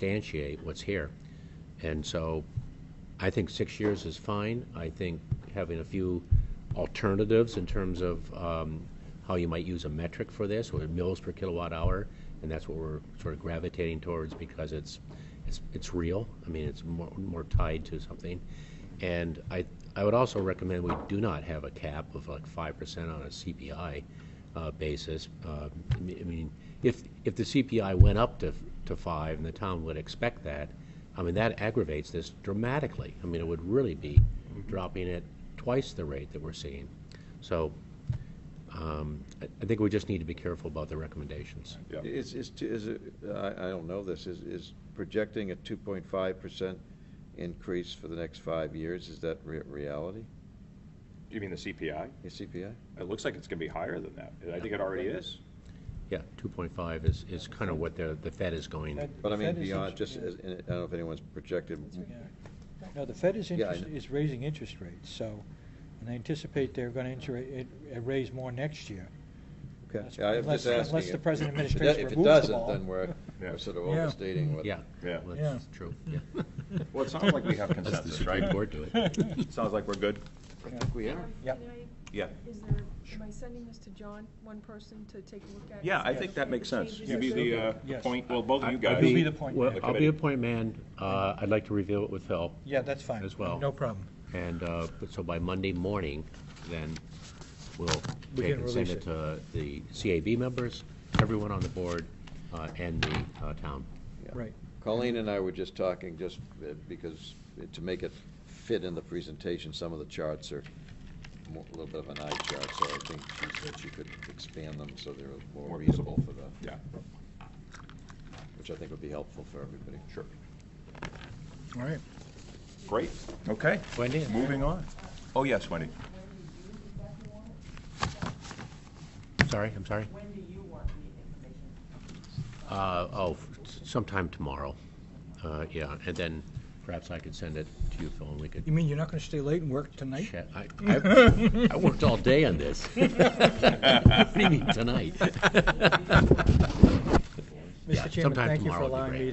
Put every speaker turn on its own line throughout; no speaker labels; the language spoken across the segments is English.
substantiate what's here. And so I think six years is fine. I think having a few alternatives in terms of um, how you might use a metric for this, or mills per kilowatt hour, and that's what we're sort of gravitating towards because it's, it's, it's real. I mean, it's more, more tied to something. And I, I would also recommend we do not have a cap of like five percent on a CPI uh, basis. Uh, I mean- I mean, if, if the CPI went up to, to five, and the town would expect that, I mean, that aggravates this dramatically. I mean, it would really be dropping it twice the rate that we're seeing. So um, I I think we just need to be careful about the recommendations.
Yeah.
Is, is, t- is, it- I, I don't know this, is, is projecting a two point five percent increase for the next five years, is that re- reality,
You mean the CPI?
your CPI?
It looks like it's going to be higher than that. I think it already is.
Yeah, 2.5 is, is kind of what the, the Fed is going.
That-
But I
the
mean,
Fed is
beyond,
interest-
just,
yeah.
as- and I don't know if anyone's projected,
Yeah. No, the Fed is
Yeah, I
interest,
know.
is raising interest rates, so, and they anticipate they're gonna inter, it, it raise more next year.
okay,
Unless-
yeah, I'm
unless-
just asking.
unless
it.
the present
If it do- If
administration
it
removes the
doesn't,
ball.
then we're,
Yeah.
we're sort of
Yeah.
overstating what.
Yeah.
Yeah.
well,
Yeah.
That's true, yeah.
Well, it sounds like we have
That's the
consensus,
Supreme
right?
Court do it.
Sounds like we're good.
We are.
Yep.
Can I-
Yeah.
Is there, am I sending this to John, one person to take a look at?
Yeah, I think that makes sense.
Changes
You be the uh,
Yes.
point, well, both of you guys.
I'll be the point
Well,
man.
I'll be the point man. Uh, I'd like to review it with Phil.
Yeah, that's fine.
As well.
No problem.
And uh, but so by Monday morning, then we'll
We
take
can
and send
release
it to the CAB members, everyone on the board, uh, and the uh, town.
Yeah.
Right.
Colleen and I were just talking, just uh, because, uh, to make it fit in the presentation, some of the charts are mo- a little bit of an eye chart, so I think she said she could expand them so they're more
More
readable
visible.
for the,
Yeah,
which I think would be helpful for everybody.
sure.
All right.
Great. Okay,
Wendy?
moving on. Oh, yes, Wendy.
Sorry, I'm sorry.
When do you want the information?
Uh, Oh, s- sometime tomorrow. Uh, Yeah, and then perhaps I could send it to you, Phil, and we could
You mean you're not gonna stay late and work tonight?
chat. I- I I worked all day on this. What do you mean, tonight? Yeah,
Mr. Chairman,
sometime
thank you for
tomorrow would be
allowing me
great.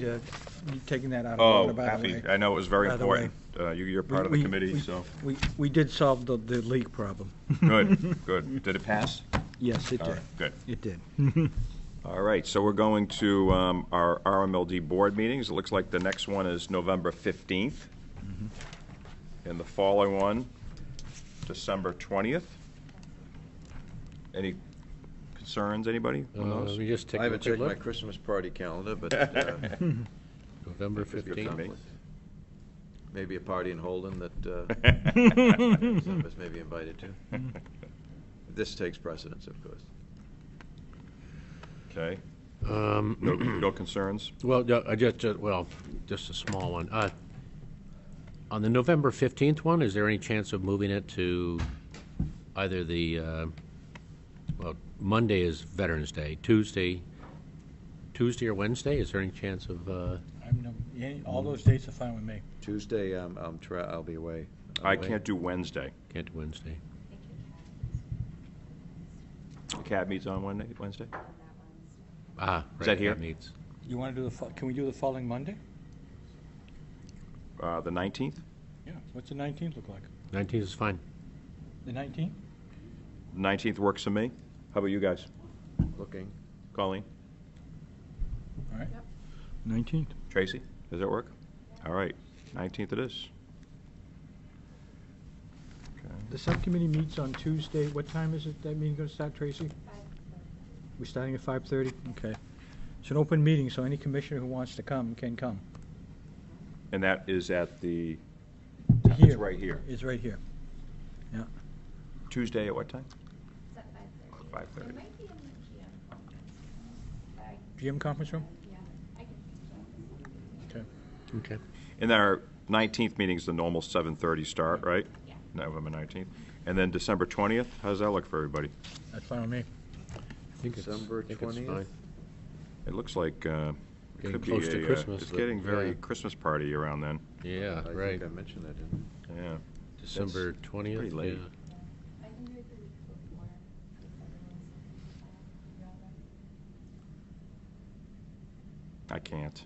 to, me taking that out
Oh,
of order, by the way.
happy. I know it was very
By the way.
important. Uh, you- You're part of the
We-
committee,
we-
so,
We, we did solve the, the leak problem.
good, good. Did it pass?
Yes, it
All
did.
right, good.
It did.
All right, so we're going to um, our RMLD board meetings. It looks like the next one is November 15th, and the following one, December 20th. Any concerns, anybody,
Uh,
on
Let
those?
me just take
I
a
haven't
quick
checked my
look.
Christmas party calendar, but uh,
November
could be a
15th.
conflict. maybe a party in Holden that uh, some of us may be invited to. This takes precedence, of course.
Okay,
Um,
no no concerns?
Well, no, I just, uh, well, just a small one. Uh, On the November 15th one, is there any chance of moving it to either the, uh, well, Monday is Veterans Day, Tuesday, Tuesday or Wednesday? Is there any chance of, uh,
I'm, no- yeah, all those dates are fine with me.
Tuesday, um, I'm tra- I'll be away.
I can't do Wednesday.
can't do Wednesday?
The CAB meets on Wednesday- Wednesday?
Ah,
Is
right,
that here?
meets.
You wanna do the, fo- can we do the following Monday?
Uh, The 19th?
Yeah. What's the nineteenth look like?
19th is fine.
The nineteenth?
19th works for me. How about you guys?
Looking.
Colleen,
All right.
Yep.
Nineteenth.
Tracy, does that work? All right, 19th it is. Okay.
The subcommittee meets on Tuesday. What time is it that meeting going to start, Tracy? We're starting at 5:30? Okay. It's an open meeting, so any commissioner who wants to come can come.
And that is at the, it's
Here.
right here.
It's right here.
Tuesday at what time?
It's at five thirty.
Five thirty.
It might be in the GM conference. I,
GM conference room?
yeah, I can check.
Okay.
And then our 19th meeting's the normal 7:30 start, right?
Yeah.
November 19th. And then December 20th, how does that look for everybody?
That's fine with me.
I think it's- I
December
think it's
20th?
fine.
It looks like uh, it
Getting
could be
close to
a, uh,
Christmas,
It's
but-
getting very
yeah.
Christmas party around then,
Yeah,
I
right.
think I mentioned that, didn't
yeah.
December
pretty
20th.
late.
yeah.
I can do it the week before. if everyone's, uh, around that.
I can't.